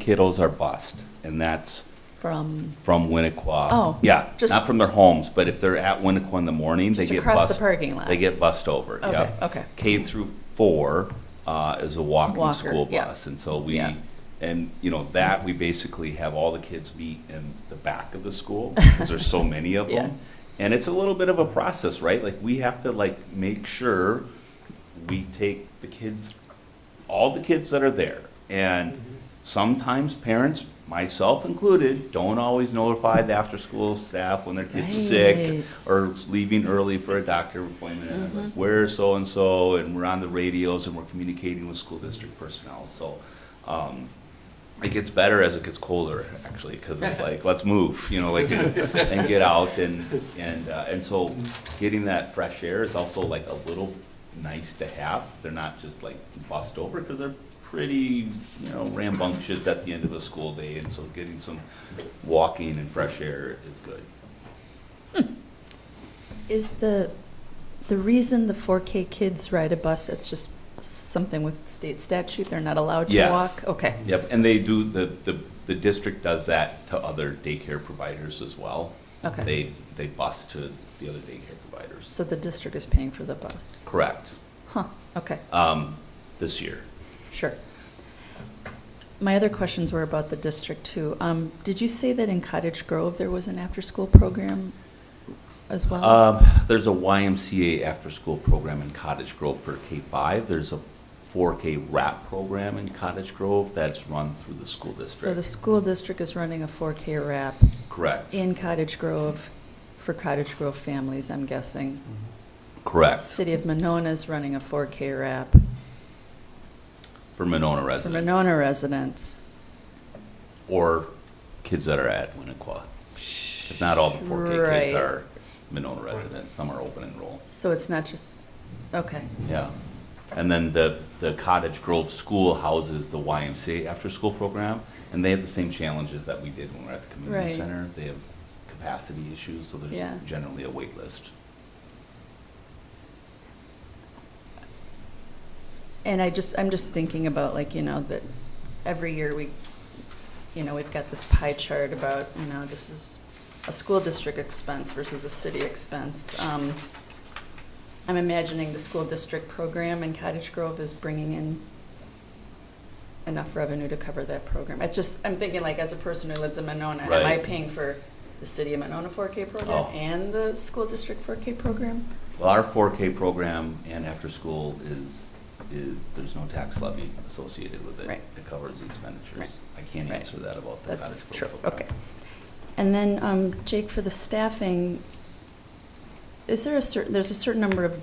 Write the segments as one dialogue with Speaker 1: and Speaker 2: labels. Speaker 1: kiddos are bused, and that's
Speaker 2: from,
Speaker 1: from Winnequa.
Speaker 2: Oh,
Speaker 1: Yeah,
Speaker 2: just-
Speaker 1: not from their homes, but if they're at Winnequa in the morning, they
Speaker 2: Just
Speaker 1: get bused.
Speaker 2: across the parking lot.
Speaker 1: They get bused over,
Speaker 2: Okay,
Speaker 1: yep.
Speaker 2: okay.
Speaker 1: K through four uh, is a walking
Speaker 2: Walker,
Speaker 1: school
Speaker 2: yeah.
Speaker 1: bus. And so we,
Speaker 2: Yeah.
Speaker 1: and, you know, that, we basically have all the kids meet in the back of the school, because there's so many of
Speaker 2: Yeah.
Speaker 1: them. And it's a little bit of a process, right? Like, we have to, like, make sure we take the kids, all the kids that are there. And sometimes parents, myself included, don't always notify the after-school staff when their kid's sick
Speaker 2: Right.
Speaker 1: or leaving early for a doctor appointment. And I'm like, Where's so-and-so? And we're on the radios and we're communicating with school district personnel. So um, it gets better as it gets colder, actually, because it's like, let's move, you know, like, and get out and, and, uh, and so getting that fresh air is also like a little nice to have. They're not just like bust over, because they're pretty, you know, rambunctious at the end of a school day, and so getting some walking and fresh air is good.
Speaker 2: is the, the reason the 4K kids ride a bus, that's just something with state statute, they're not allowed to
Speaker 1: Yes.
Speaker 2: walk? Okay,
Speaker 1: Yep, and they do, the, the, the district does that to other daycare providers as well.
Speaker 2: Okay.
Speaker 1: They, they bus to the other daycare providers.
Speaker 2: so the district is paying for the bus?
Speaker 1: Correct,
Speaker 2: Huh, okay,
Speaker 1: um, this year.
Speaker 2: sure. My other questions were about the district too. Um, Did you say that in Cottage Grove, there was an after-school program as well?
Speaker 1: Um, there's a YMCA after-school program in Cottage Grove for K-5. There's a 4K wrap program in Cottage Grove that's run through the school
Speaker 2: So the
Speaker 1: district.
Speaker 2: school district is running a 4K wrap
Speaker 1: Correct,
Speaker 2: in Cottage Grove for Cottage Grove families, I'm guessing.
Speaker 1: correct,
Speaker 2: City of Monona is running a 4K wrap
Speaker 1: for Monona
Speaker 2: for
Speaker 1: residents.
Speaker 2: Monona residents.
Speaker 1: Or kids that are at Winnequa. If not all the 4K kids
Speaker 2: Right.
Speaker 1: are Monona residents, some are open enroll.
Speaker 2: So it's not just, okay,
Speaker 1: Yeah. And then the, the Cottage Grove School houses the YMCA after-school program, and they have the same challenges that we did when we were at the community
Speaker 2: Right.
Speaker 1: center. They have capacity issues, so
Speaker 2: Yeah.
Speaker 1: there's generally a wait list.
Speaker 2: And I just, I'm just thinking about like, you know, that every year we, you know, we've got this pie chart about, you know, this is a school district expense versus a city expense. Um, I'm imagining the school district program in Cottage Grove is bringing in enough revenue to cover that program. It's just, I'm thinking like as a person who lives in Monona, am I
Speaker 1: Right.
Speaker 2: paying for the city of Monona 4K program
Speaker 1: Oh.
Speaker 2: and the school district 4K program?
Speaker 1: Well, our 4K program and after-school is, is, there's no tax levy associated with it.
Speaker 2: Right.
Speaker 1: It covers the
Speaker 2: Right.
Speaker 1: expenditures. I can't
Speaker 2: Right.
Speaker 1: answer that about the Cottage
Speaker 2: That's
Speaker 1: Grove
Speaker 2: true,
Speaker 1: program.
Speaker 2: okay. And then, um, Jake, for the staffing, is there a certain, there's a certain number of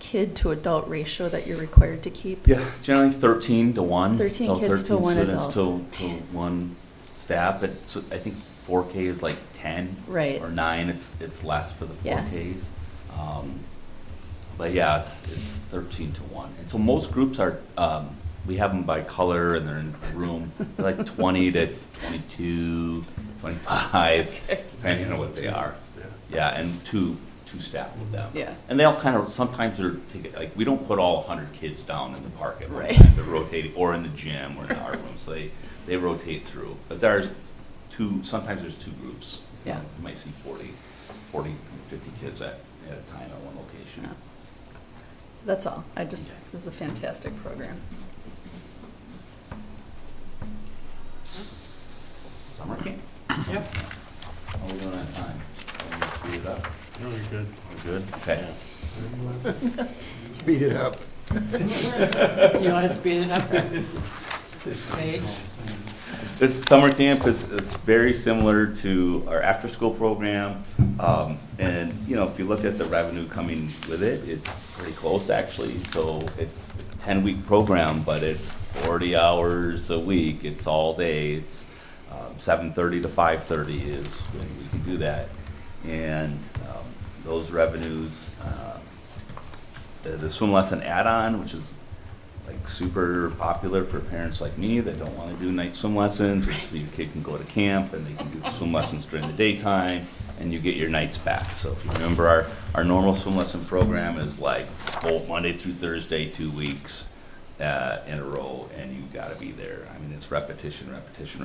Speaker 2: kid to adult ratio that you're required to keep?
Speaker 1: Yeah, generally thirteen to one.
Speaker 2: 13
Speaker 1: So
Speaker 2: kids to
Speaker 1: 13
Speaker 2: one
Speaker 1: students
Speaker 2: adult.
Speaker 1: To, to one staff, it's, I think four K is like ten.
Speaker 2: Right.
Speaker 1: Or nine, it's, it's less for the four
Speaker 2: Yeah.
Speaker 1: Ks. Um, But yeah, it's, it's thirteen to one. And so most groups are, um, we have them by color and they're in a room, They're like twenty to 22, 25, depending on what they are. Yeah, and two, two staff with them.
Speaker 2: Yeah.
Speaker 1: And they all kind of, sometimes they're, taking- like, we don't put all 100 kids down in the park at one
Speaker 2: Right.
Speaker 1: time. They're rotating, or in the gym, or in the art room, so they, they rotate through. But there's two, sometimes there's two groups.
Speaker 2: Yeah.
Speaker 1: You might see 40, 40, 50 kids at, at a time at one location.
Speaker 2: Yeah. That's all, I just, this is a fantastic program.
Speaker 1: Summer camp?
Speaker 3: Yep.
Speaker 1: How are we doing on time? Are we speed it up?
Speaker 3: No, you're good.
Speaker 1: We're good? Okay.
Speaker 4: Speed it up.
Speaker 5: You want to speed it up? Paige?
Speaker 1: This summer camp is, is very similar to our after-school program. Um, and, you know, if you look at the revenue coming with it, it's pretty close actually. So it's a ten-week program, but it's forty hours a week. It's all day. It's, um, seven-thirty to five-thirty is when we can do that. And, um, those revenues, uh, the, the swim lesson add-on, which is like super popular for parents like me that don't want to do night swim lessons. It's so your kid can go to camp and they can do swim lessons during the daytime and you get your nights back. So if you remember, our, our normal swim lesson program is like full Monday through Thursday, two weeks uh, in a row, and you got to be there. I mean, it's repetition, repetition,